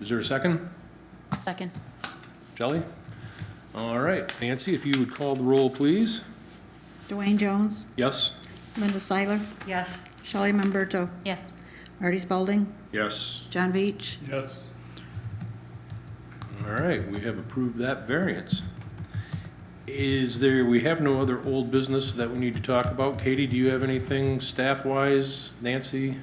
Is there a second? Second. Shelley? All right, Nancy, if you would call the roll, please. Dwayne Jones, Yes? Linda Seiler, Yes. Shelley Mamberto, Yes. Artie Spaulding, Yes. John Beach. Yes. All right, we have approved that variance. Is there, we have no other old business that we need to talk about. Katie, do you have anything staff-wise? Nancy,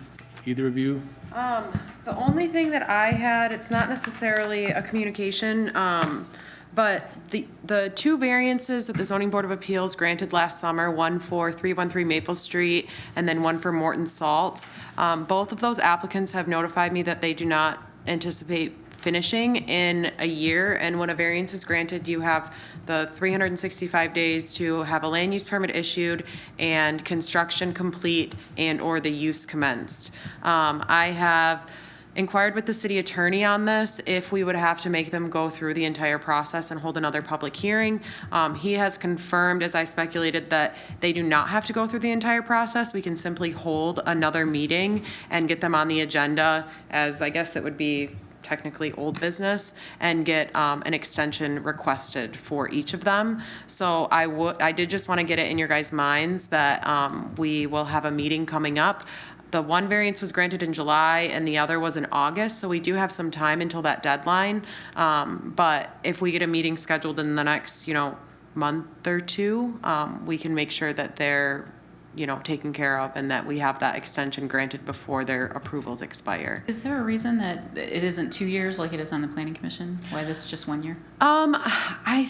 either of you? Um, the only thing that I had, it's not necessarily a communication, um, but the, the two variances that the zoning board of appeals granted last summer, one for three one three Maple Street and then one for Morton Salt. Um, both of those applicants have notified me that they do not anticipate finishing in a year. And when a variance is granted, you have the 365 days to have a land use permit issued and construction complete and/or the use commenced. Um, I have inquired with the city attorney on this, if we would have to make them go through the entire process and hold another public hearing. Um, He has confirmed, as I speculated, that they do not have to go through the entire process. We can simply hold another meeting and get them on the agenda as, I guess it would be technically old business and get um, an extension requested for each of them. So I would, I did just want to get it in your guys' minds that um, we will have a meeting coming up. The one variance was granted in July and the other was in August, so we do have some time until that deadline. Um, But if we get a meeting scheduled in the next, you know, month or two, um, we can make sure that they're, you know, taken care of and that we have that extension granted before their approvals expire. Is there a reason that it isn't two years like it is on the planning commission? Why this is just one year? Um, I,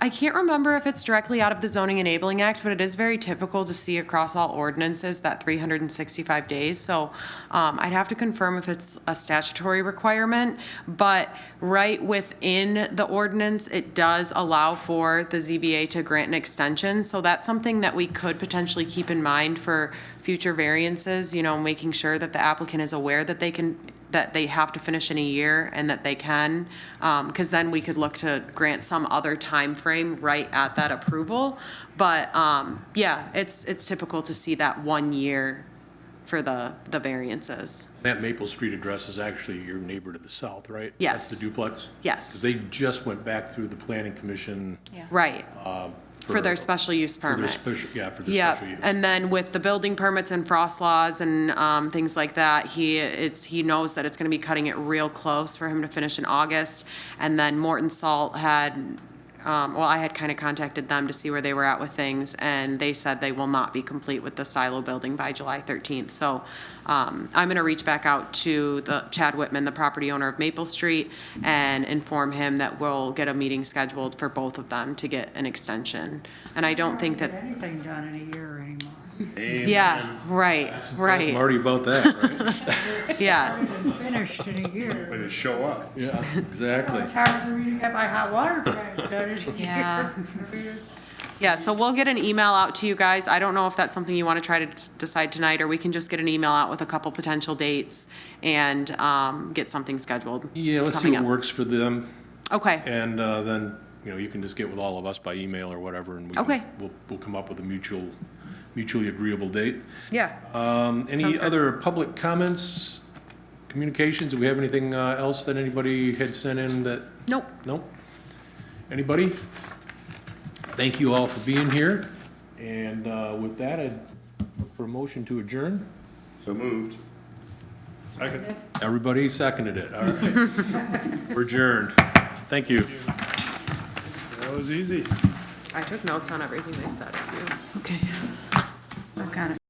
I can't remember if it's directly out of the zoning enabling act, but it is very typical to see across all ordinances that three hundred and sixty-five days. So, um, I'd have to confirm if it's a statutory requirement, but right within the ordinance, it does allow for the ZBA to grant an extension. So that's something that we could potentially keep in mind for future variances, you know, making sure that the applicant is aware that they can that they have to finish in a year and that they can, because then we could look to grant some other time frame right at that approval. But um, yeah, it's, it's typical to see that one year for the, the variances. That Maple Street address is actually your neighbor to the south, right? That's Yes. the duplex? Yes. They just went back through the planning commission. Right, uh, for their special use For their permit. special, yeah, for their Yeah, special use. and then with the building permits and frost laws and um, things like that, he, it's, he knows that it's gonna be cutting it real close for him to finish in August. And then Morton Salt had, um, well, I had kind of contacted them to see where they were at with things, and they said they will not be complete with the silo building by July thirteenth. So um, I'm gonna reach back out to the Chad Whitman, the property owner of Maple Street, and inform him that we'll get a meeting scheduled for both of them to get an extension. And I don't think that. anything done in a year anymore. Yeah, right, I'm right, already about that, right? yeah. Finished in a year. But it show up. Yeah, exactly. It's hard for me to get my hot water tank done in a year. Yeah. I mean, it's- Yeah, so we'll get an email out to you guys. I don't know if that's something you want to try to s- decide tonight, or we can just get an email out with a couple potential dates and um, get something scheduled. Yeah, let's see what coming up. works for them, Okay, and uh, then, you know, you can just get with all of us by email or whatever, and we can- Okay. we'll, we'll come up with a mutual, mutually agreeable date. yeah. Um, Any Sounds good. other public comments, communications? Do we have anything uh, else that anybody had sent in that, Nope, no? Anybody? Thank you all for being here, and uh, with that, I'd look for a motion to adjourn. So moved. Second. Everybody seconded it, all right. We're adjourned. Thank you. That was easy. I took notes on everything they said. if you- Okay. Work on it.